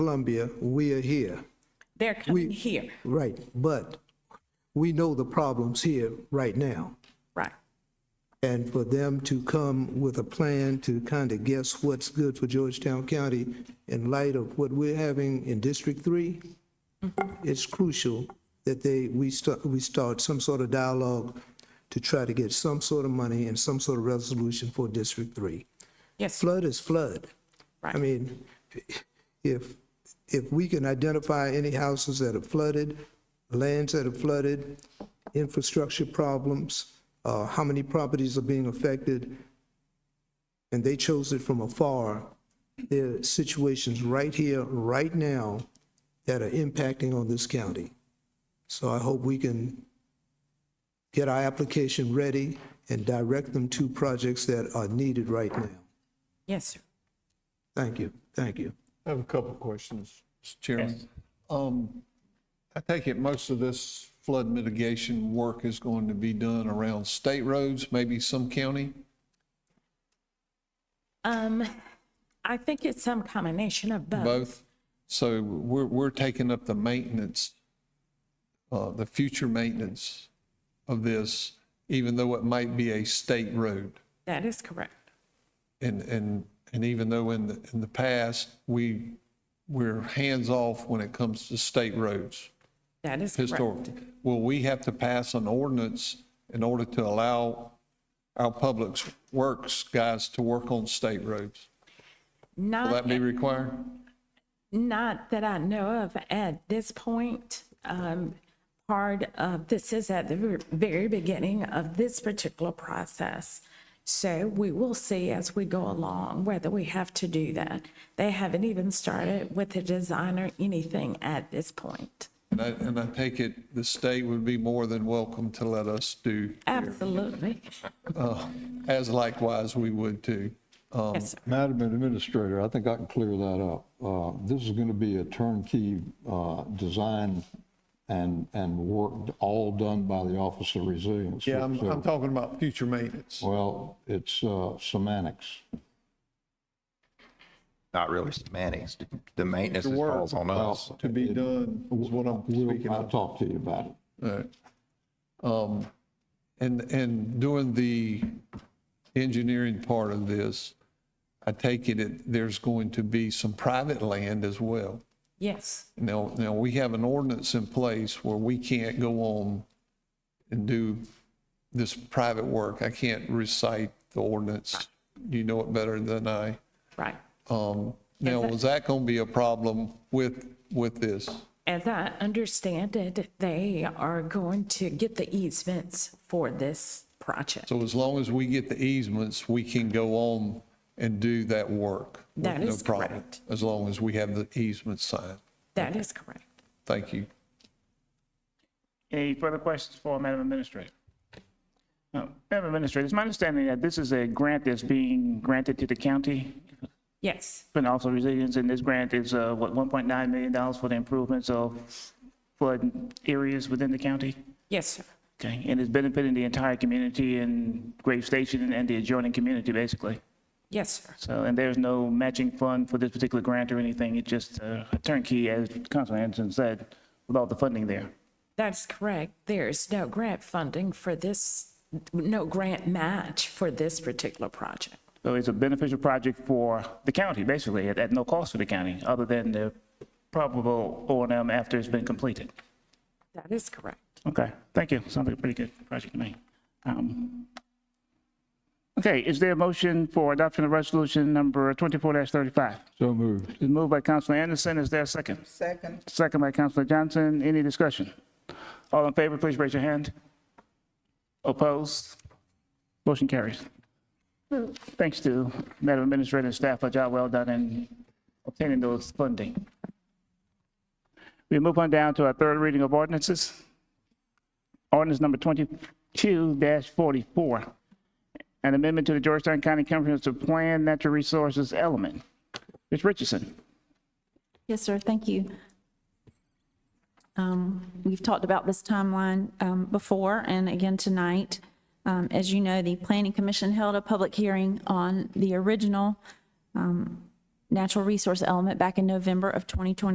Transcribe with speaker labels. Speaker 1: Columbia, we are here,
Speaker 2: They're coming
Speaker 1: We-
Speaker 2: here,
Speaker 1: right, but we know the problems here right now.
Speaker 2: right?
Speaker 1: And for them to come with a plan to kind of guess what's good for Georgetown County in light of what we're having in District Three, it's crucial that they, we start, we start some sort of dialogue to try to get some sort of money and some sort of resolution for District Three.
Speaker 2: Yes,
Speaker 1: Flood is flood. I
Speaker 2: right.
Speaker 1: mean, if, if we can identify any houses that are flooded, lands that are flooded, infrastructure problems, uh, how many properties are being affected, and they chose it from afar, there are situations right here, right now, that are impacting on this county. So I hope we can get our application ready and direct them to projects that are needed right now.
Speaker 2: Yes, sir.
Speaker 1: Thank you, thank you.
Speaker 3: I have a couple of questions, Mr. Chairman. Um, I take it most of this flood mitigation work is going to be done around state roads, maybe some county?
Speaker 2: Um, I think it's some combination of both.
Speaker 3: Both. So we're, we're taking up the maintenance, uh, the future maintenance of this, even though it might be a state road.
Speaker 2: That is correct.
Speaker 3: And, and, and even though in the, in the past, we, we're hands-off when it comes to state roads.
Speaker 2: That is correct.
Speaker 3: historically. Will we have to pass an ordinance in order to allow our public works guys to work on state roads? Will
Speaker 2: Not,
Speaker 3: that be required?
Speaker 2: not that I know of at this point. Um, part of, this is at the ver- very beginning of this particular process. So we will see as we go along whether we have to do that. They haven't even started with the design or anything at this point.
Speaker 3: And I, and I take it the state would be more than welcome to let us do,
Speaker 2: Absolutely.
Speaker 3: as likewise we would too. Um,
Speaker 2: Yes, sir.
Speaker 4: Madam Administrator, I think I can clear that up. Uh, This is going to be a turnkey uh, design and, and work all done by the Office of Resilience.
Speaker 3: Yeah, I'm,
Speaker 4: So-
Speaker 3: I'm talking about future maintenance.
Speaker 4: Well, it's uh, semantics.
Speaker 5: not really semantics. The maintenance
Speaker 3: The word.
Speaker 5: falls on us.
Speaker 3: To be done is what I'm speaking
Speaker 4: We'll, I'll
Speaker 3: of.
Speaker 4: talk to you about it.
Speaker 3: Alright. Um, And, and doing the engineering part of this, I take it it there's going to be some private land as well.
Speaker 2: Yes.
Speaker 3: Now, now we have an ordinance in place where we can't go on and do this private work. I can't recite the ordinance. You know it better than I.
Speaker 2: Right.
Speaker 3: Um, Now, is that going to be a problem with, with this?
Speaker 2: As I understand it, they are going to get the easements for this project.
Speaker 3: So as long as we get the easements, we can go on and do that work. with
Speaker 2: That
Speaker 3: no
Speaker 2: is
Speaker 3: problem,
Speaker 2: correct.
Speaker 3: As long as we have the easement signed.
Speaker 2: That is correct.
Speaker 3: Thank you.
Speaker 6: Any further questions for Madam Administrator? No. Madam Administrator, it's my understanding that this is a grant that's being granted to the county,
Speaker 2: Yes,
Speaker 6: but also resilience, and this grant is, uh, what, $1.9 million for the improvements of flood areas within the county?
Speaker 2: yes, sir.
Speaker 6: Okay, and it's benefiting the entire community in Grave Station and the adjoining community, basically.
Speaker 2: Yes, sir.
Speaker 6: So, and there's no matching fund for this particular grant or anything, it's just uh, a turnkey, as Councilman Anderson said, with all the funding there.
Speaker 2: That's correct. There's no grant funding for this, no grant match for this particular project.
Speaker 6: So it's a beneficial project for the county, basically, at, at no cost to the county, other than the probable O and M after it's been completed.
Speaker 2: That is correct.
Speaker 6: Okay, thank you. Sounds like a pretty good project to me. Um, Okay, is there a motion for adoption of resolution number twenty-four thirty-five?
Speaker 4: So moved.
Speaker 6: It's moved by Councilor Anderson. Is there a second? Second. Second by Councilor Johnson. Any discussion? All in favor, please raise your hand. Opposed? Motion carries. Thanks to Madam Administrator and staff for a job well done in obtaining those funding. We move on down to our third reading of ordinances. Ordinance number 22-44, an amendment to the Georgetown County Comprehensive Plan Natural Resources Element. Ms. Richardson.
Speaker 7: Yes, sir, thank you. Um, We've talked about this timeline um, before and again tonight. Um, As you know, the Planning Commission held a public hearing on the original um, natural resource element back in November of 2020.